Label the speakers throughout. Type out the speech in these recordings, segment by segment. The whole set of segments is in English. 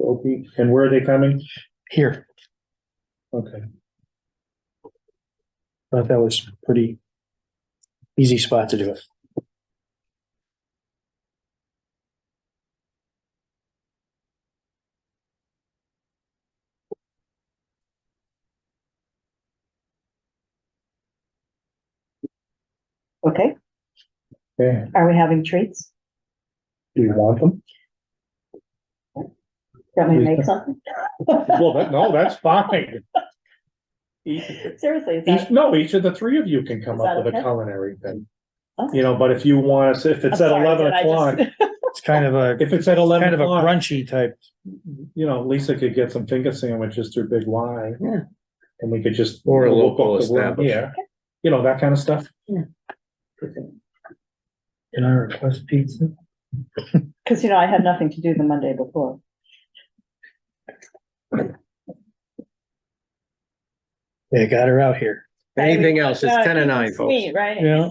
Speaker 1: Okay, and where are they coming?
Speaker 2: here.
Speaker 1: Okay,
Speaker 2: Thought that was pretty easy spot to do it.
Speaker 3: Okay,
Speaker 1: okay.
Speaker 3: are we having treats?
Speaker 1: Do you want them?
Speaker 3: Want me to make something?
Speaker 1: Well, that, no, that's fine. Each,
Speaker 3: Seriously, is
Speaker 1: each-
Speaker 3: that,
Speaker 1: no, each of the three of you can come
Speaker 3: Is
Speaker 1: up
Speaker 3: that
Speaker 1: with a
Speaker 3: okay?
Speaker 1: culinary thing,
Speaker 3: Okay.
Speaker 1: you know, but if you want, us- if it's
Speaker 3: I'm
Speaker 1: at
Speaker 3: sorry,
Speaker 1: eleven
Speaker 3: did I just-
Speaker 1: o'clock,
Speaker 2: It's kind of a,
Speaker 1: if it's at eleven
Speaker 2: kind of a
Speaker 1: o'clock,
Speaker 2: crunchy type.
Speaker 1: you know, Lisa could get some finger sandwiches through Big Y.
Speaker 2: Yeah.
Speaker 1: And we could just.
Speaker 4: Or a
Speaker 1: we'll
Speaker 4: local
Speaker 1: book the room
Speaker 4: establishment.
Speaker 1: here, You know, that kind of stuff.
Speaker 2: Can I request pizza?
Speaker 3: Cause you know, I had nothing to do the Monday before.
Speaker 2: They got her out here.
Speaker 4: Anything else? It's
Speaker 3: Uh,
Speaker 4: ten and nine, folks.
Speaker 3: Sweet, right?
Speaker 2: Yeah.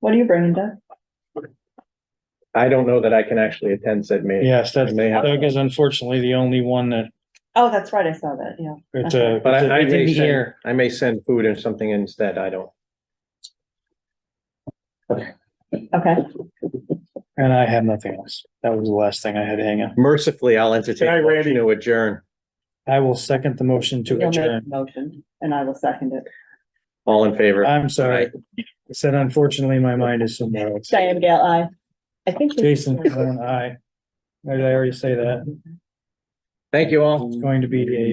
Speaker 3: What are you bringing, Doug?
Speaker 4: I don't know that I can actually attend said meeting.
Speaker 2: Yes, that's,
Speaker 4: They have-
Speaker 2: Doug is unfortunately the only one that,
Speaker 3: Oh, that's right, I saw that, yeah.
Speaker 2: it's a.
Speaker 4: But I, I
Speaker 2: it's in
Speaker 4: may
Speaker 2: the
Speaker 4: send,
Speaker 2: air.
Speaker 4: I may send food or something instead. I don't.
Speaker 3: Okay,
Speaker 2: And I have nothing else. That was the last thing I had to hang on.
Speaker 4: Mercifully, I'll entertain
Speaker 1: Can I,
Speaker 4: a
Speaker 1: Randy?
Speaker 4: motion to adjourn.
Speaker 2: I will second the motion to
Speaker 3: you'll make a
Speaker 2: adjourn.
Speaker 3: motion and I will second it.
Speaker 4: All in favor?
Speaker 2: I'm sorry. I said unfortunately, my mind is somewhere else.
Speaker 3: Diane Gale, I, I think. we-
Speaker 2: Jason, Peron, aye. Did I already say that?
Speaker 4: Thank you all.
Speaker 2: It's going to be a